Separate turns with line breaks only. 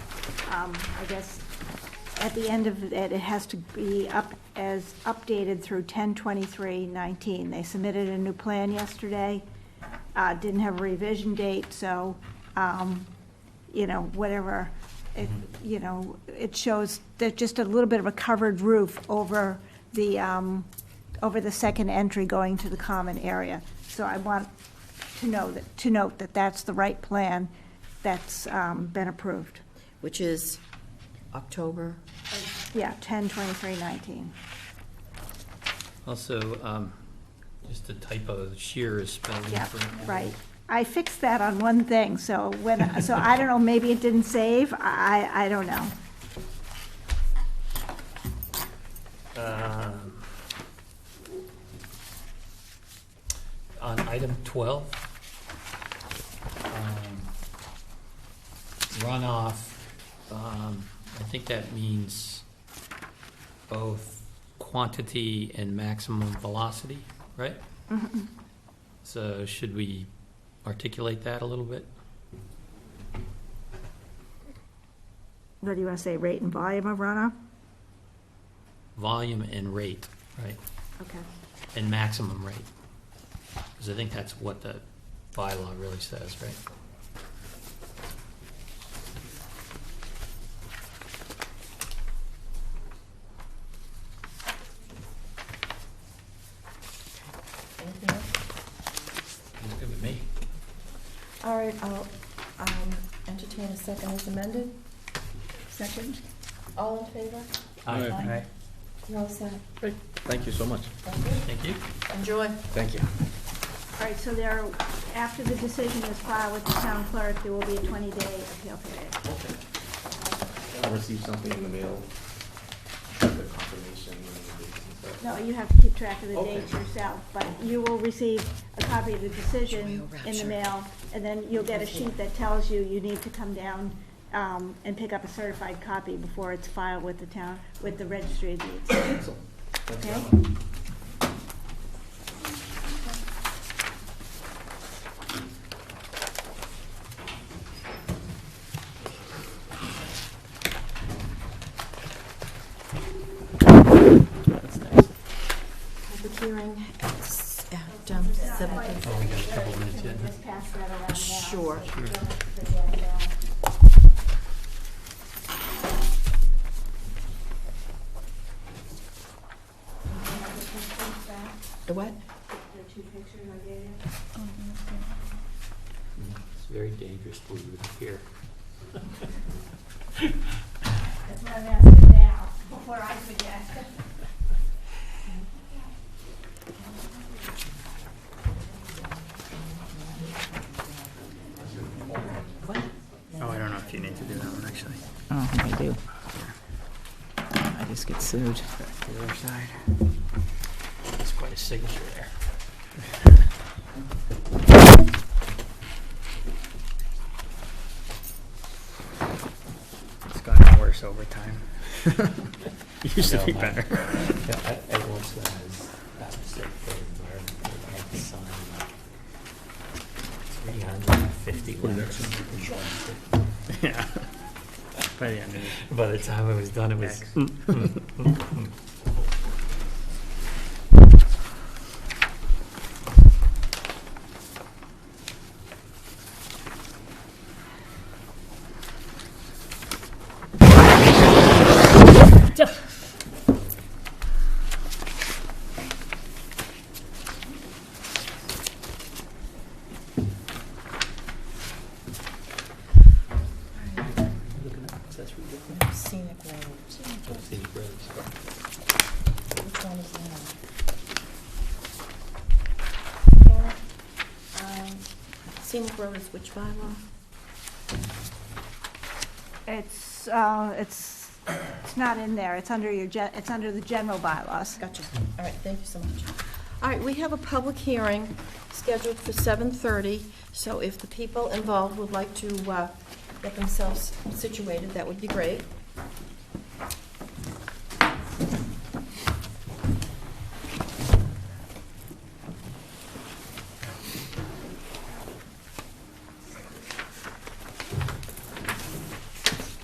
um, I guess, at the end of, it, it has to be up, as updated through 10/23/19. They submitted a new plan yesterday, uh, didn't have a revision date, so, um, you know, whatever, it, you know, it shows, there's just a little bit of a covered roof over the, um, over the second entry going to the common area. So I want to know that, to note that that's the right plan that's um, been approved.
which is October.
Yeah, 10, 23, 19.
Also, um, just a typo, shear is spelled
Yeah,
incorrectly.
right. I fixed that on one thing, so when, so I don't know, maybe it didn't save, I, I don't know.
Um, On item 12, um, runoff, um, I think that means both quantity and maximum velocity, right?
Mm-hmm.
So should we articulate that a little bit?
What do you want to say, rate and volume of runoff?
Volume and rate, right?
Okay.
and maximum rate. Because I think that's what the bylaw really says, right?
Anything else?
It's good with me.
All right, I'll um, entertain a second as amended. Second. All in favor?
Aye.
Aye. You're all set.
Great, thank you so much.
Thank you.
Thank you.
Enjoy.
Thank you.
All right, so there, are- after the decision is filed with the town clerk, there will be a 20-day appeal period.
I received something in the mail, the confirmation and the dates and stuff.
No, you have to keep track of the
Okay.
dates yourself, but you will receive a copy of the decision
Joy
in the
Rapture.
mail, and then you'll get a sheet that tells you you need to come down um, and pick up a certified copy before it's filed with the town, with the registry of deeds,
Excellent. Thank you.
okay?
Public hearing at s- at um, seven thirty.
Oh, we got a couple minutes yet.
Just pass that around now.
Sure. The what?
It's very dangerous to leave it here.
That's what I'm asking now, before I forget.
Oh, I don't know if you need to do that one, actually.
I don't think I do. I just get sued.
The other side. There's quite a signature there. It's gotten worse over time. It used to be better.
e-, Everyone's got his best mistake for the environment, they have to sign like three hundred and fifty letters.
Yeah. By the end of it.
By the time it was done, it was.
Next.
Scenic road. Which one is that? Karen, um, Scenic road is which bylaw?
It's, uh, it's, it's not in there, it's under your, gen- it's under the general bylaws.
Gotcha. All right, thank you so much. All right, we have a public hearing scheduled for 7:30, so if the people involved would like to uh, get themselves situated, that would be great.